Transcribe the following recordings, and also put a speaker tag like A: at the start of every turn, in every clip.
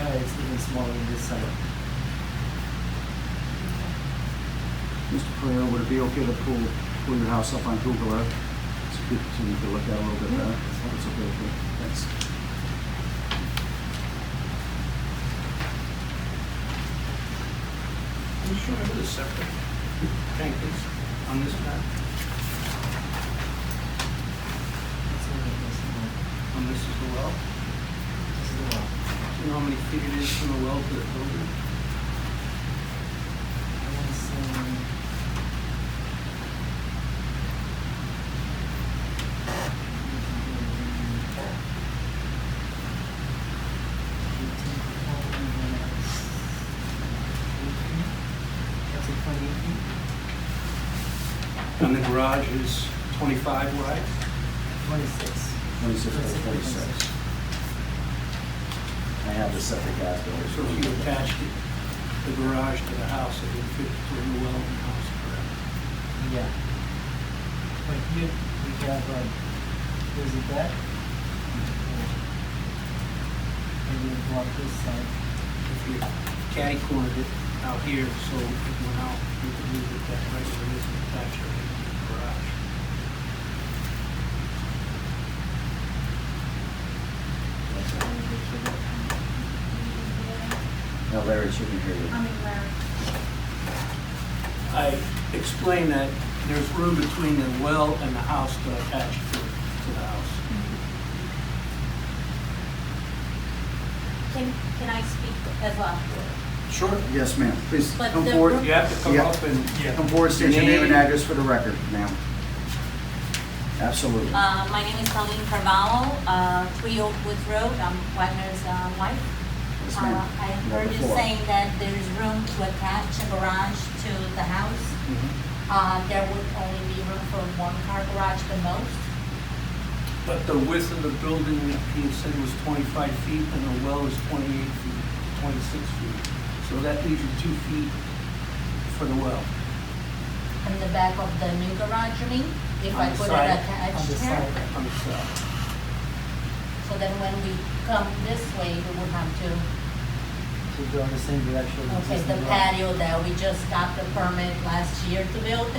A: uh, it's even smaller than this side.
B: Mr. Pereira, would it be okay to pull, pull your house up on Google Earth? It's good to, you can look at it a little bit better. It's okay, okay, thanks.
C: Can you show me where the septic tank is on this map,
A: That's all it is, uh,
C: on this is the well?
A: this is the wall.
C: Do you know how many feet it is from the well to the building?
A: I wanna say- That's a twenty feet,
C: And the garage is 25 wide?
A: twenty-six.
B: Twenty-six by
A: Twenty-six by
B: forty-six. I have the septic as
C: So if you attached it- the garage to the house, it would fit between the well and the house, correct?
A: Yeah. But here, we have, um, there's a deck. And we block this side.
C: If you catty cornered it out here, so it went out, you could move it that way, so it isn't attached to the garage.
B: No, Larry shouldn't hear you.
D: I mean, Larry.
C: I explained that there's room between the well and the house to attach to, to the house.
D: Can, can I speak as well?
C: Sure.
B: Yes, ma'am, please
D: But
B: come
D: the-
B: forward.
C: You have to come
B: Yeah.
C: up and.
B: Come forward, state your name and
C: Name.
B: address for the record, ma'am. Absolutely.
D: Uh, my name is Colleen Carvalho, uh, three Oakwood Road, I'm Wagner's, uh, wife.
B: Yes,
D: Uh,
B: ma'am.
D: I
B: You have
D: heard
B: the
D: you
B: floor.
D: saying that there's room to attach a garage to the house.
C: Mhm.
D: Uh, there would only be room for one car garage the most.
C: But the width of the building, he had said was 25 feet, and the well is 28 feet, 26 feet. So that leaves you two feet for the well.
D: In the back of the new garage, you mean? If
C: On
D: I
C: the
D: put it
C: side,
A: on
D: attached
A: the
D: here?
A: side.
C: On the south.
D: So then when we come this way, we would have to,
A: To go in the same direction. as
D: okay,
A: the
D: the
A: wall.
D: patio that we just got the permit last year to build.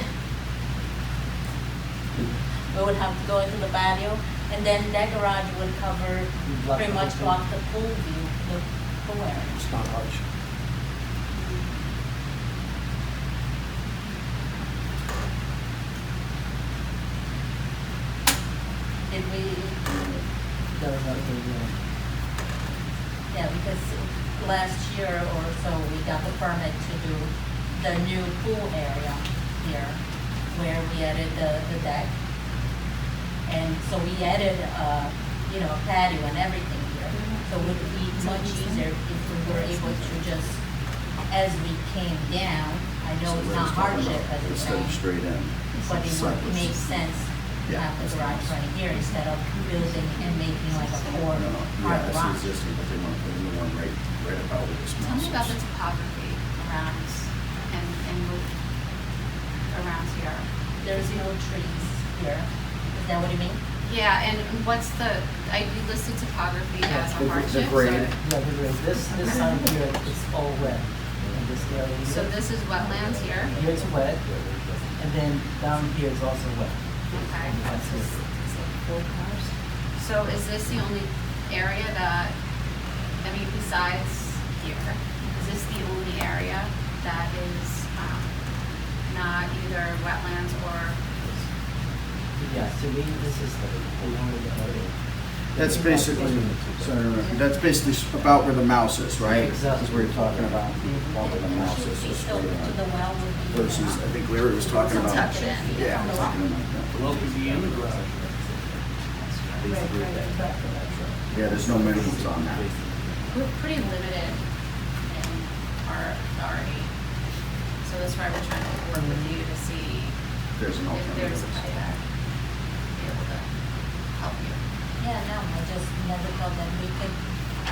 D: We would have to go into the patio, and then that garage would cover,
A: You block
D: pretty
A: the
D: much
A: whole
D: block the pool view, the pool area.
C: It's not hardship.
D: Did we,
A: thing. That was not the, uh,
D: yeah, because last year or so, we got the permit to do the new pool area here, where we added the, the deck. And so we added, uh, you know, patio and everything here, so it would be much easier if we were able to just, as we came down, I know it's not hardship, but it's
B: Instead of straight in.
D: but it would
B: Sideways.
D: make sense to
B: Yeah.
D: have the garage right here instead of building and making like a four
B: No, no,
D: car
B: yeah,
D: garage.
B: it's existing, but they want, they want one right, right about where this
E: Tell
B: mouse
E: me about the
B: is.
E: topography around and, and with- around here.
D: There's no trees here, is that what you mean?
E: Yeah, and what's the, I, you listed topography
A: Yeah,
E: as
B: the- the
E: a hardship.
B: grade.
E: so-
A: yeah, the grade. this, this side here, it's all wet. And this area here.
E: So this is wetlands here,
A: Here it's wet, and then down here is also wet.
E: okay.
A: And that's it.
E: So is this the only area that, I mean, besides here, is this the only area that is, um, not either wetlands or
A: Yeah, so we, this is the, the only area.
B: That's basically, sorry, that's basically s- about where the mouse is, right?
A: Exactly.
B: That's where you're talking about, about where the mouse is, so
D: So
B: straight
D: to
B: in.
D: the uh, well would be.
B: Versus, I think Larry was talking
E: It's
B: about.
E: tucked in.
B: Yeah, talking about that.
C: The well could be in the garage.
B: Yeah, there's no minimums on that.
E: We're pretty limited in our authority. So that's why we're trying to work with you to see
B: There's an
E: if there's
B: alternative.
E: a way that we'll be able to help you.
D: Yeah, no, I just never thought that we could,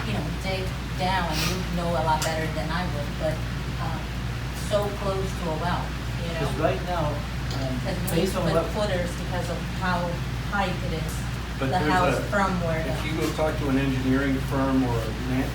D: you know, dig down, you know a lot better than I would, but, um, so close to a well, you know?
A: Because right now, um,
D: Because we
A: based on
D: put
A: what,
D: footers because of how high it is,
C: But
D: the
C: there's
D: house
C: a-
D: from where the.
C: If you go talk to an engineering firm or a land,